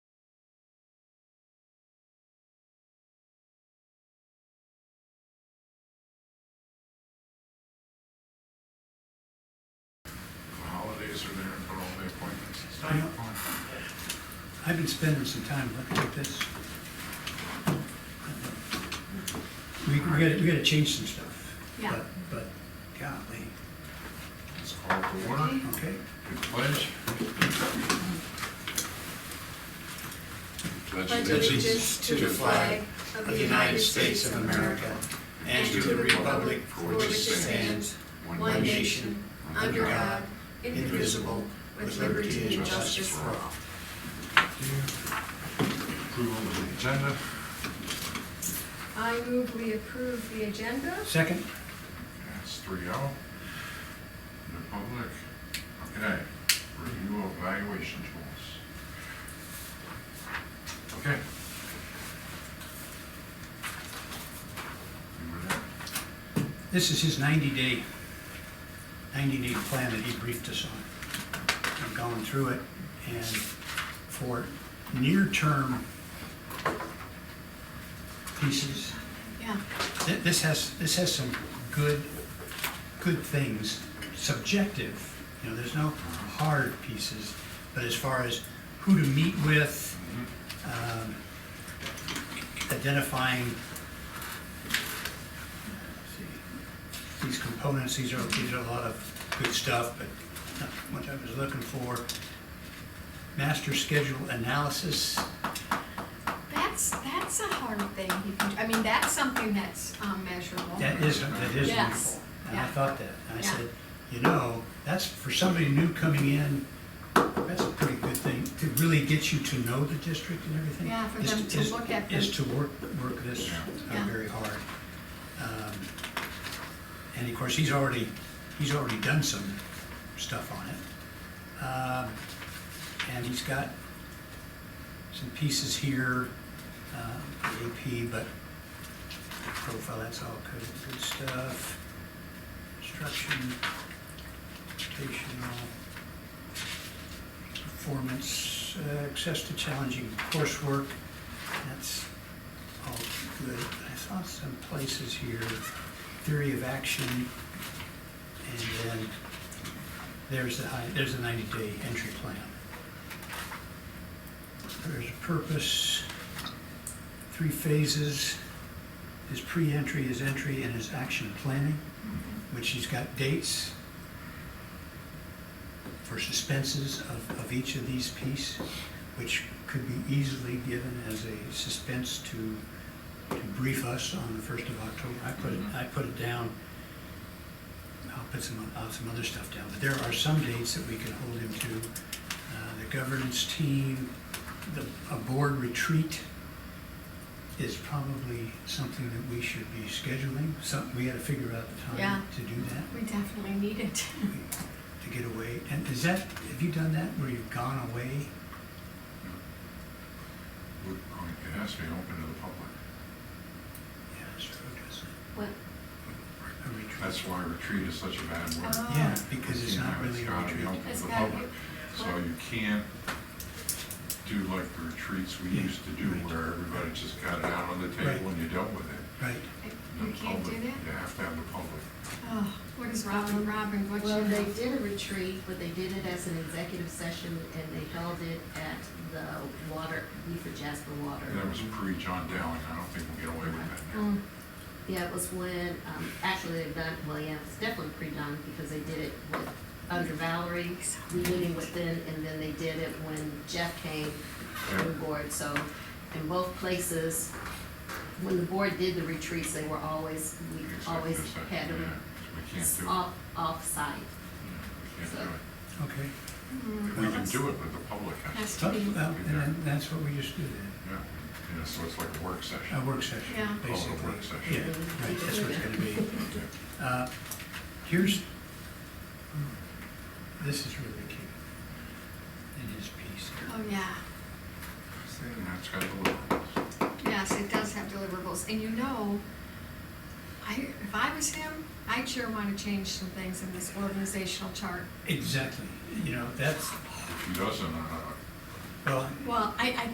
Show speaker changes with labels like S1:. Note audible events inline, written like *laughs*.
S1: I've been spending some time looking at this. We, we gotta, we gotta change some stuff.
S2: Yeah.
S1: But- But, golly,
S3: It's called for order,
S1: okay,
S3: we pledge. Pledge
S2: Pledge
S3: allegiance
S2: allegiance to the flag of the United States of America and to the republic for which it stands, one nation, under God, indivisible, with liberty and justice for all.
S3: Approval of the agenda,
S2: I move we approve the agenda.
S1: second,
S3: that's three oh. The public, okay, review of evaluation tools. Okay. You were there?
S1: this is his ninety-day, ninety-day plan that he briefed us on. I've gone through it, and for near-term pieces,
S2: Yeah.
S1: Th- This has, this has some good, good things, subjective, you know, there's no hard pieces, but as far as who to meet with,
S3: Mm-hmm.
S1: um, identifying, let's see, these components, these are, these are a lot of good stuff, but not what I was looking for. Master schedule analysis,
S2: That's, that's a hard thing. you can- I mean, that's something that's um, measurable.
S1: That is, that is
S2: Yes,
S1: wonderful. And I
S2: yeah.
S1: thought that. And I
S2: Yeah.
S1: said, you know, that's, for somebody new coming in, that's a pretty good thing, to really get you to know the district and everything.
S2: Yeah, for
S1: is
S2: them to
S1: is-
S2: look at them.
S1: Is to work, work this
S3: Yeah.
S1: uh,
S2: Yeah.
S1: very hard. Um, And of course, he's already, he's already done some stuff on it. Um, And he's got some pieces here, um, the AP, but profile, that's all good, good stuff. Instruction, rotational, performance, uh, access to challenging coursework, that's all Oh, good. I saw some places here, theory of action, and then there's the high, there's the ninety-day entry plan. There's a purpose, three phases, his pre-entry, his entry, and his action planning, which he's got dates for suspenses of, of each of these piece, which could be easily given as a suspense to, to brief us on the first of October. I put it, I put it down, I'll put some, I'll some other stuff down, but there are some dates that we can hold him to. Uh, The governance team, the, a board retreat is probably something that we should be scheduling, some, we gotta figure out the
S2: Yeah.
S1: time to do that
S2: We definitely need it. *laughs*
S1: to get away. And is that, have you done that where you've gone away?
S3: Look, It has to be open to the public.
S1: Yeah, it's true, doesn't
S2: What?
S1: it? A retreat.
S3: That's why retreat is such a bad word.
S2: Oh.
S1: Yeah, because it's
S3: You
S1: not
S3: know,
S1: really a
S3: gotta be
S1: retreat.
S3: open
S2: It's
S3: to the
S2: gotta be-
S3: public. So you can't do like the retreats we
S1: Yeah,
S3: used to do
S1: right.
S3: where everybody just got it out on the table
S1: Right.
S3: and you dealt with it.
S1: Right.
S3: The
S2: You can't do
S3: public-
S2: that?
S3: You have to have the public.
S2: Oh, what is Robin, Robin, what
S4: Well, they
S2: you,
S4: did a retreat, but they did it as an executive session, and they held it at the water, Beaufort Jasper Water. Um,
S3: And That was pre-John Dowling, I don't think we'll get away with that now.
S2: Mm,
S4: Yeah, it was when, um, actually, they've done, well, yeah, it's definitely pre-done, because they did it with, under Valerie, we meeting with them, and then they did it when Jeff came on board, so in both places, when the board did the retreats, they were always, we
S3: Executive
S4: always
S3: session,
S4: had them
S3: yeah. We can't do it.
S4: off, off-site.
S3: We can't
S4: so-
S3: do it.
S1: Okay.
S2: mm,
S3: We can
S2: that's-
S3: do it, but the public has
S2: That's
S3: to.
S1: Well,
S2: to be,
S1: well, and then that's what we just do
S3: Yeah, Yeah, so it's like a work
S1: then.
S3: session.
S1: A work session,
S2: Yeah.
S3: Oh, a
S1: basically.
S3: work session.
S1: Yeah, right, that's what it's gonna be. Uh, Here's, hmm, this is really cute. It is piece here.
S2: oh, yeah.
S3: And that's got the little.
S2: Yes, it does have deliverables, and you know, I, if I was him, I'd sure wanna change some things in this organizational chart.
S1: Exactly, you know, that's,
S3: If he doesn't, uh,
S1: well,
S2: Well, I, I